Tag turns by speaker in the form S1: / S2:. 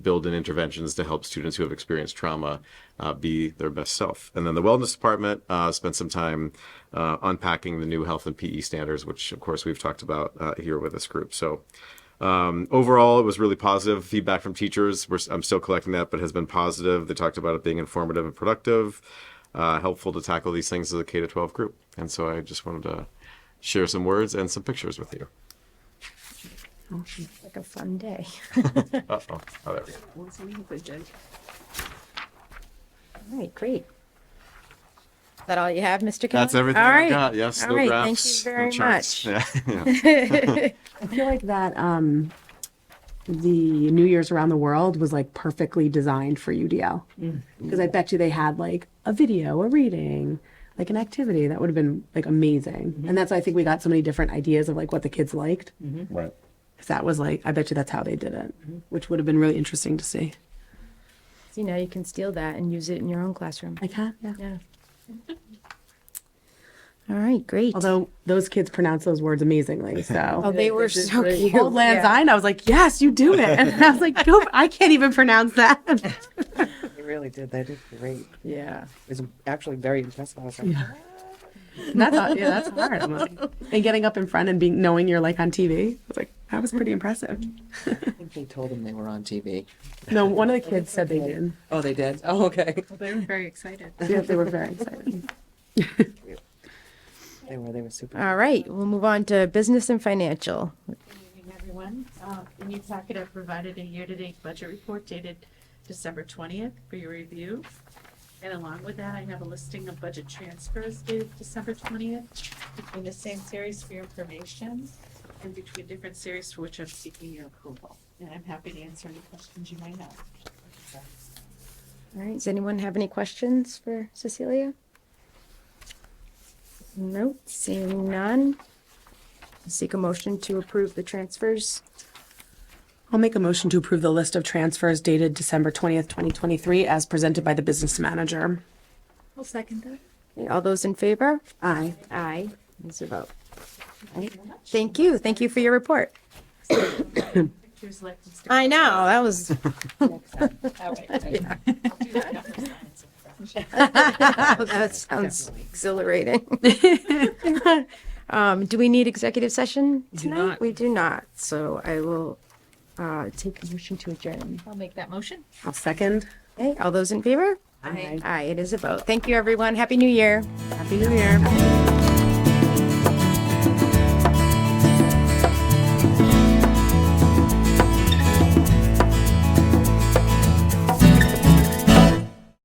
S1: build in interventions to help students who have experienced trauma uh, be their best self. And then the wellness department uh, spent some time uh, unpacking the new health and PE standards, which of course we've talked about uh, here with this group. So um, overall, it was really positive feedback from teachers. We're, I'm still collecting that, but has been positive. They talked about it being informative and productive, uh, helpful to tackle these things as a K to 12 group. And so I just wanted to share some words and some pictures with you.
S2: Like a fun day.
S1: Uh oh. Oh, there we go.
S2: All right, great. Is that all you have, Mr. Kelly?
S1: That's everything
S2: All
S1: I
S2: right.
S1: got. Yes,
S2: All
S1: no
S2: right,
S1: graphs, no
S2: Thank you very
S1: charts.
S2: much.
S1: Yeah.
S3: I feel like that um the New Year's around the world was like perfectly designed for UDL. Because I bet you they had like a video, a reading, like an activity that would have been like amazing. And that's why I think we got so many different ideas of like what the kids liked.
S1: Right.
S3: Because that was like I bet you that's how they did it, which would have been really interesting to see.
S2: You know, you can steal that and use it in your own classroom.
S3: I can, yeah.
S2: Yeah. All right, great.
S3: Although those kids pronounce those words amazingly, so
S2: Oh, they were so cute.
S3: Old Land's End, I was like, yes, you do it. And I was like, go, I can't even pronounce that.
S4: They really did. They did great.
S3: Yeah.
S4: It was actually very impressive. I was like,
S3: That's hard. yeah, that's hard. I'm like- and getting up in front and being knowing you're like on TV, it's like that was pretty impressive.
S4: I think they told them they were on TV.
S3: No, one of the kids said they did.
S4: Oh, they did? Oh, okay.
S5: They were very excited.
S3: Yeah, they were very excited.
S4: They were, they were super.
S2: All right, we'll move on to business and financial.
S5: Good evening, everyone. Uh, In your packet, I provided a year-to-date budget report dated December 20th for your review. And along with that, I have a listing of budget transfers dated December 20th between the same series for your information and between different series for which I'm seeking your approval. And I'm happy to answer any questions you might have.
S2: All right, does anyone have any questions for Cecilia? Nope, seeing none. Seek a motion to approve the transfers.
S3: I'll make a motion to approve the list of transfers dated December twentieth, twenty twenty-three, as presented by the business manager.
S5: I'll second that.
S2: Okay, All those in favor?
S3: Aye.
S2: Aye. It's a vote. All right, Thank you, thank you for your report.
S5: Pictures like this.
S2: I know, that was,
S5: All right. I'll do that after science and French.
S2: that sounds exhilarating. Um, do we need executive session tonight? We do not, so I will, uh, take a motion to adjourn.
S5: I'll make that motion.
S3: I'll second.
S2: Okay, all those in favor?
S3: Aye.
S2: Aye, it is a vote. Thank you, everyone. Happy New Year.
S3: Happy New Year.